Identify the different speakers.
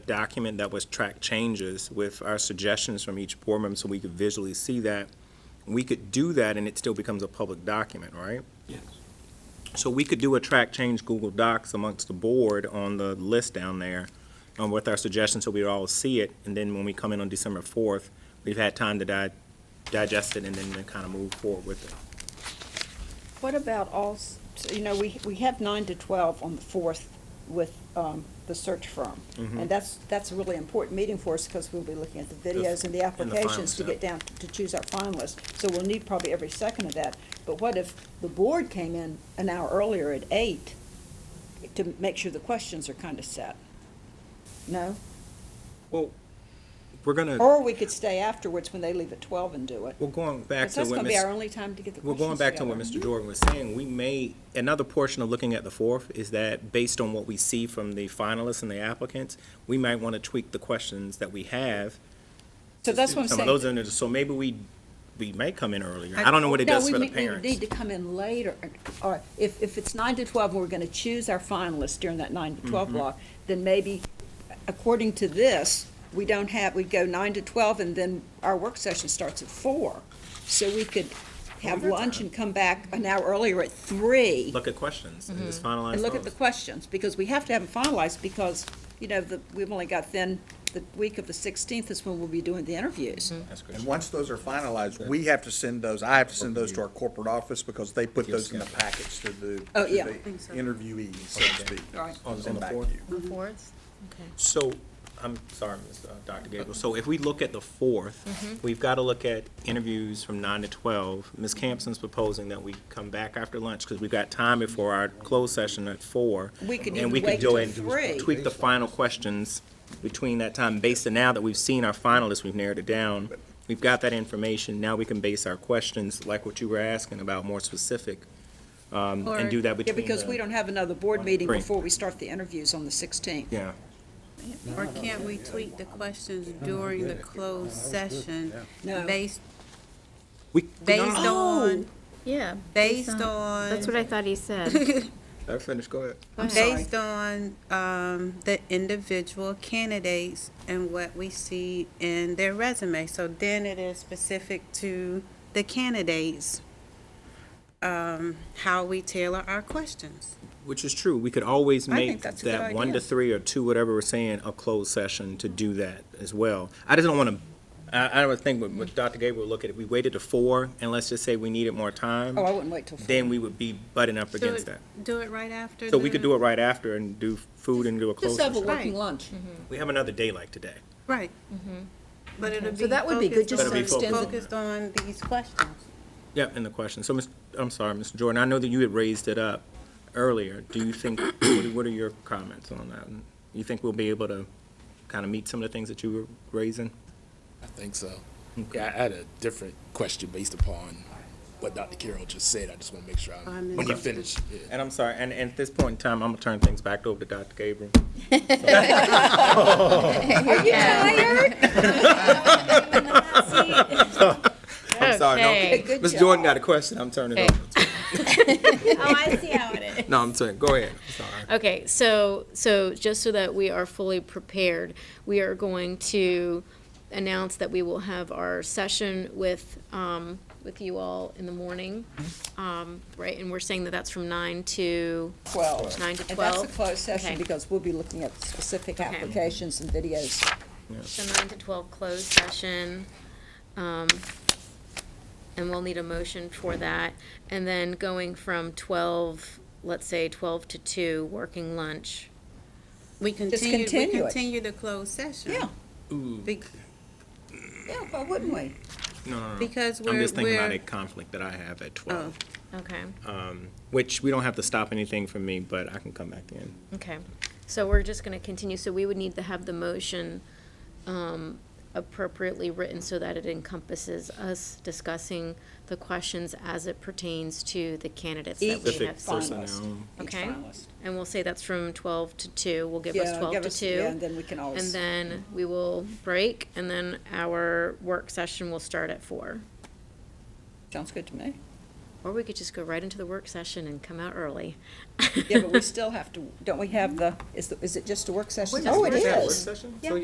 Speaker 1: document that was track changes with our suggestions from each board member so we could visually see that. We could do that and it still becomes a public document, right?
Speaker 2: Yes.
Speaker 1: So we could do a track change Google Docs amongst the board on the list down there um, with our suggestions so we all see it. And then when we come in on December 4th, we've had time to di- digest it and then kind of move forward with it.
Speaker 3: What about all, s- so, you know, we, we have nine to twelve on the fourth with, um, the search firm.
Speaker 1: Mm-hmm.
Speaker 3: And that's, that's a really important meeting for us because we'll be looking at the videos and the
Speaker 1: and the
Speaker 3: applications to
Speaker 1: finalists, yeah.
Speaker 3: get down, to choose our finalists. So we'll need probably every second of that. But what if the board came in an hour earlier at eight to make sure the questions are kind of set? No?
Speaker 1: Well, we're going to,
Speaker 3: Or we could stay afterwards when they leave at twelve and do it.
Speaker 1: we're going back
Speaker 3: Because
Speaker 1: to
Speaker 3: that's
Speaker 1: what
Speaker 3: gonna be
Speaker 1: Ms.
Speaker 3: our only time to get the
Speaker 1: Well,
Speaker 3: questions
Speaker 1: going back to what
Speaker 3: together.
Speaker 1: Mr. Jordan was saying, we may, another portion of looking at the fourth is that based on what we see from the finalists and the applicants, we might want to tweak the questions that we have.
Speaker 3: So that's what I'm
Speaker 1: Some of
Speaker 3: saying.
Speaker 1: those, in there. so maybe we, we may come in earlier. I don't know what it
Speaker 3: No,
Speaker 1: does
Speaker 3: we
Speaker 1: for the
Speaker 3: need- we would
Speaker 1: parents.
Speaker 3: need to come in later, or if, if it's nine to twelve, and we're gonna choose our finalists during that nine to
Speaker 1: Mm-hmm.
Speaker 3: twelve block, then maybe, according to this, we don't have, we go nine to twelve, and then our work session starts at four. So we could have
Speaker 1: got
Speaker 3: lunch
Speaker 1: time.
Speaker 3: and come back an hour earlier at three,
Speaker 1: Look at questions and just finalize
Speaker 3: Mm-hmm. and look at the
Speaker 1: those.
Speaker 3: questions, because we have to have them finalized, because, you know, the, we've only got then, the week of the sixteenth is when we'll be doing the interviews.
Speaker 1: That's good.
Speaker 2: And once those are finalized, we have to send those, I have to send those to our corporate office because they put those in the packets to the, to
Speaker 3: Oh,
Speaker 2: the
Speaker 3: yeah.
Speaker 2: interviewees, so to speak.
Speaker 3: All right.
Speaker 1: On- on
Speaker 2: Send
Speaker 1: the
Speaker 2: back to
Speaker 1: fourth?
Speaker 2: you.
Speaker 4: The fourth? Okay.
Speaker 1: So, I'm sorry, Ms. uh, Dr. Gabriel, so if we look at the
Speaker 4: Mm-hmm.
Speaker 1: fourth, we've got to look at interviews from nine to twelve. Ms. Campson's proposing that we come back after lunch, because we've got time before our closed session at four.
Speaker 3: We could
Speaker 1: And we
Speaker 3: even
Speaker 1: could go
Speaker 3: wait
Speaker 1: and
Speaker 3: till three.
Speaker 1: tweak the final questions between that time, based on now that we've seen our finalists, we've narrowed it down. We've got that information, now we can base our questions, like what you were asking about, more specific, um, and do that
Speaker 3: Yeah,
Speaker 1: between
Speaker 3: because
Speaker 1: the-
Speaker 3: we don't have another
Speaker 1: one
Speaker 3: board
Speaker 1: and
Speaker 3: meeting
Speaker 1: three.
Speaker 3: before we start the interviews on the sixteenth.
Speaker 1: Yeah.
Speaker 4: Or can't we tweak the questions during the closed session
Speaker 3: No.
Speaker 4: based,
Speaker 1: We- Oh!
Speaker 4: based on,
Speaker 5: Yeah.
Speaker 4: based
Speaker 5: on- That's
Speaker 4: on,
Speaker 5: what I thought he said.
Speaker 1: I finished, go ahead.
Speaker 5: I'm
Speaker 4: based on, um, the individual candidates and what we see in their resume? So then it is specific to the candidates, um, how we tailor our questions.
Speaker 1: Which is true. We could always
Speaker 4: I think
Speaker 1: make
Speaker 4: that's a good
Speaker 1: that one to
Speaker 4: idea.
Speaker 1: three or two, whatever we're saying, a closed session to do that as well. I just don't want to, I, I don't think what, what Dr. Gabriel look at, if we waited to four, and let's just say we needed more time,
Speaker 3: Oh, I wouldn't wait till four.
Speaker 1: then we would be butting up
Speaker 4: Do
Speaker 1: against
Speaker 4: it-
Speaker 1: that.
Speaker 4: Do it right after.
Speaker 1: So we could do it right after and do food and do a closed
Speaker 3: Just have a
Speaker 1: session.
Speaker 3: working
Speaker 4: Right.
Speaker 3: lunch.
Speaker 1: We have another day like today.
Speaker 4: Right. But it'll be.
Speaker 5: So that would be good just
Speaker 1: to But it'll be extend
Speaker 4: Focused on these questions.
Speaker 1: Yep, and the question. So, Ms., I'm sorry, Mr. Jordan, I know that you had raised it up earlier. Do you think, what are- what are your comments on that? You think we'll be able to kind of meet some of the things that you were raising?
Speaker 6: I think so. Yeah, I had a different question based upon what Dr. Carroll just said. I just want to make sure
Speaker 4: I
Speaker 6: I'm, when you
Speaker 4: missed it.
Speaker 6: finish. yeah.
Speaker 1: And I'm sorry, and, and at this point in time, I'm gonna turn things back over to Dr. Gabriel. I'm sorry,
Speaker 3: Okay,
Speaker 1: no.
Speaker 3: good
Speaker 1: Ms.
Speaker 3: job.
Speaker 1: Jordan got a question, I'm turning it over. to-
Speaker 5: Oh, I see how it is.
Speaker 1: No, I'm turning, go ahead, I'm sorry.
Speaker 5: Okay, so, so just so that we are fully prepared, we are going to announce that we will have our session with, um, with you all in the morning. Um, right, and we're saying that that's from nine to,
Speaker 3: Twelve.
Speaker 5: Mm-hmm. Nine to
Speaker 3: And that's a
Speaker 5: 12?
Speaker 3: closed session
Speaker 5: Okay.
Speaker 3: because we'll be looking at specific
Speaker 5: Okay.
Speaker 3: applications and videos.
Speaker 5: so nine to twelve closed session. Um, and we'll need a motion for that. And then going from twelve, let's say twelve to two, working lunch.
Speaker 4: We continue, we
Speaker 3: continue it.
Speaker 4: continue the closed session.
Speaker 3: Yeah,
Speaker 4: Be-
Speaker 3: yeah, why wouldn't we?
Speaker 1: No, no, no.
Speaker 4: Because
Speaker 1: I'm
Speaker 4: we're,
Speaker 1: just thinking about a
Speaker 4: we're,
Speaker 1: conflict that I have at twelve,
Speaker 3: Oh.
Speaker 5: Okay.
Speaker 1: which we don't have to stop anything from me, but I can come back in.
Speaker 5: Okay, so we're just gonna continue, so we would need to have the motion um, appropriately written so that it encompasses us discussing the questions as it pertains to the candidates that we
Speaker 3: Each
Speaker 1: Specific
Speaker 5: have seen.
Speaker 3: finalist.
Speaker 1: personnel.
Speaker 3: Each
Speaker 5: Okay.
Speaker 3: finalist.
Speaker 5: And we'll say that's from twelve to two, we'll give us
Speaker 3: Yeah,
Speaker 5: twelve
Speaker 3: give
Speaker 5: to
Speaker 3: us- yeah, And
Speaker 5: two.
Speaker 3: then we can
Speaker 5: And
Speaker 3: always,
Speaker 5: then we will break, and then our work session will start at four.
Speaker 3: sounds good to me.
Speaker 5: Or we could just go right into the work session and come out early.
Speaker 3: Yeah, but we still have to, don't we have the, is, the- is it just a work session?
Speaker 5: just
Speaker 3: Oh, it
Speaker 5: work
Speaker 3: is.
Speaker 5: session.
Speaker 1: Work session? So,
Speaker 5: Yeah.